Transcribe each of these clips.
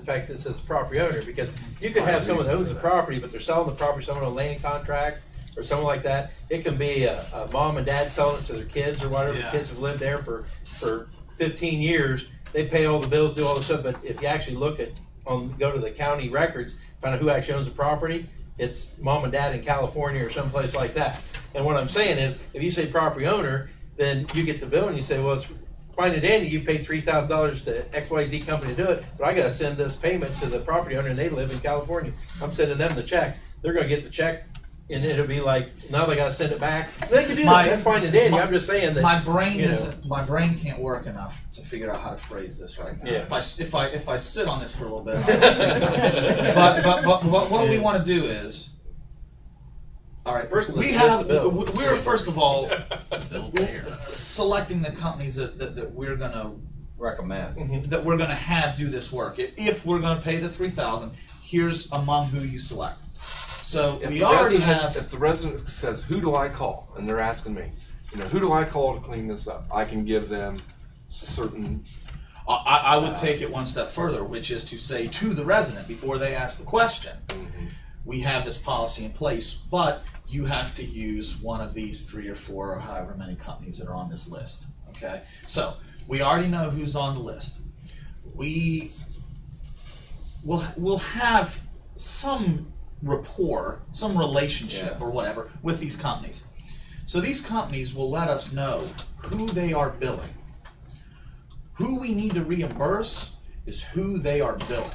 the fact that it says property owner, because you could have someone that owns the property, but they're selling the property, someone on a land contract or someone like that. It can be a, a mom and dad selling it to their kids or whatever. The Yeah. Kids have lived there for, for fifteen years. They pay all the bills, do all the stuff, but if you actually look at, on, go to the county records, find out who actually owns the property, it's mom and dad in California or someplace like that. And what I'm saying is, if you say property owner, then you get the bill and you say, well, it's Find it Andy, you paid three thousand dollars to XYZ company to do it, but I gotta send this payment to the property owner and they live in California. I'm sending them the check. They're gonna get the check and it'll be like, now they gotta send it back. They can do My- that. That's fine and dandy. my- I'm just saying that. my brain you know. isn't my brain can't work enough to figure out how to phrase this right now. Yeah. If I s- if I if I sit on this for a little bit, I'll- but, but but but what we want to do is. All right. person that we split have the bill. we- we're first of all selecting the companies that, that, that we're gonna recommend. that we're gonna have do this work. If- If we're gonna pay the three thousand, here's among who you select. So If we the already resident, have If the resident says, "Who do I call?" and they're asking me, you know, who do I call to clean this up? I can give them certain. I, I I would take it one step further, which is to say to the resident before they ask the question, we have this policy in place, but you have to use one of these three or four or however many companies that are on this list. Okay, so we already know who's on the list. We will will have some rapport, some relationship or whatever with these companies. So these companies will let us know who they are billing. Who we need to reimburse is who they are billing.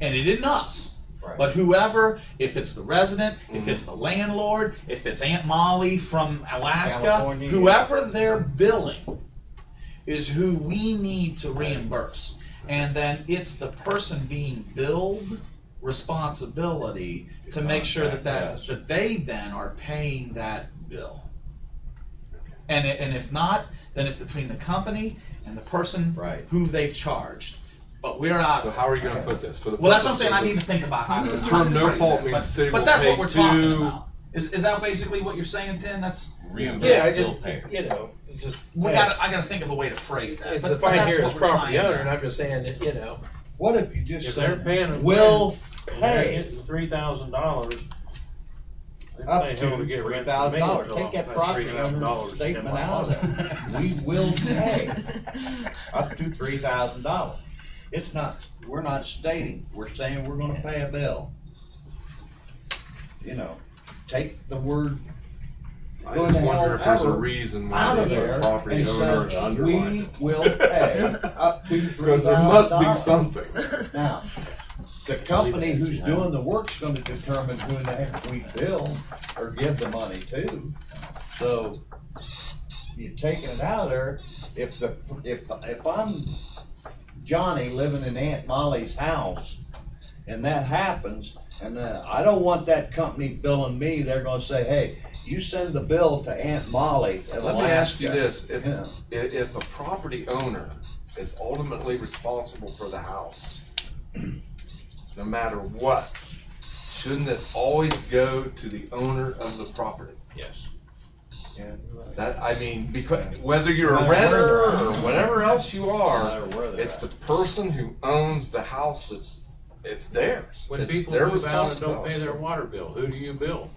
And it isn't us. Right. Mm-hmm. But whoever, if it's the resident, if it's the landlord, if it's Aunt Molly from Alaska, California. whoever they're billing is who we need to reimburse. And then it's the person being billed responsibility to make sure that that, Yes. that they then are paying that bill. And, i- and if not, then it's between the company and the person Right. who they've charged. But we're out. So how are you going to put this? For the well, that's what I'm purpose saying. of I need this- to think about how to The term no phrase fault that. means but, the city but will that's pay what we're talking two- about. Is, is that basically what you're saying, Tim? That's Yeah, I just, you know, it's just. we yeah. got. I got to think of a way to phrase that. It's but, the but fine that's here what is we're property trying to- owner and I'm just saying that, you know, What if you just If they're said, paying them. will They're pay getting three thousand dollars. up to three thousand dollars? Take that property owner's statement out of it. We will pay up to three thousand dollars. It's not, we're not stating, we're saying we're gonna pay a bill. You know, take the word I Go just to hell wonder if there's a ever reason why out they of put there property and owner say, underline we it. will pay up to three thousand because there dollars. must be something. Now, the company who's doing the work's gonna determine who the heck we bill or give the money to. So, you're taking it out of there, if the, if, if I'm Johnny living in Aunt Molly's house, and that happens, and uh, I don't want that company billing me, they're gonna say, hey, you send the bill to Aunt Molly in Let me ask you Alaska." this, if, Yeah. i- if a property owner is ultimately responsible for the house, no matter what, shouldn't it always go to the owner of the property? Yes. Yeah, you're right. That, I mean, because, whether you're a Matter where renter they're or whatever else you are, Matter where they're it's at. the person who owns the house that's, it's theirs. When It's people their move out and don't responsibility. pay their water bill, who do you bill?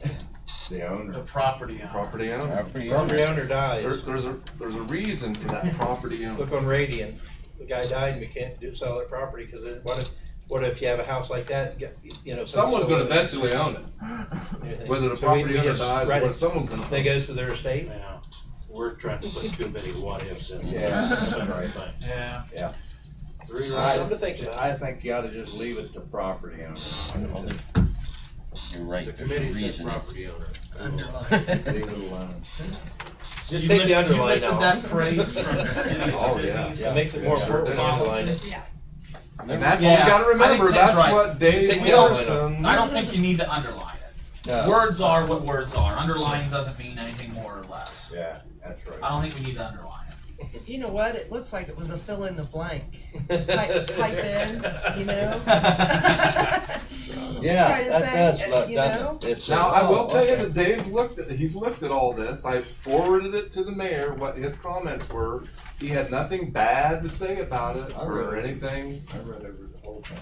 The owner. The property owner. Property owner. property owner There, dies. there's a, there's a reason for that property owner. Look on Radian, the guy died and we can't do, sell that property, cause it, what if, what if you have a house like that, you- you know. Someone's gonna bet. eventually own it. Whether the So we- we property owner just dies, write or it. what someone's gonna. That goes to their estate. Now, we're trying to put too many what ifs in. Yeah, that's right. Yeah. Yeah. Three I- Something to think about. I think you ought to just leave it to property owners. You're right, The there's a committee says reason it's property owner. Leave it alone. Just take You lift- the underline You lifted out. that phrase from the city of Oh, yeah. Sydney's It makes it more Sure. important. policy. And that's Yeah. what we gotta I remember. think Tim's That's right. what Just Dave take the element Wilson. I don't think you need to underline it. No. Words are what words are. Underline doesn't mean anything more or less. Yeah, that's I right. don't think we need to underline it. You know what? It looks like it was a fill in the blank. Type, type in, you know? Yeah, Try to that say, does uh, look, you know? doesn't it? It's Now, a- I will oh, tell you okay. that Dave looked at, he's looked at all this. I forwarded it to the mayor, what his comments were. He had nothing bad to say about it I or read it. anything. I read over the whole thing.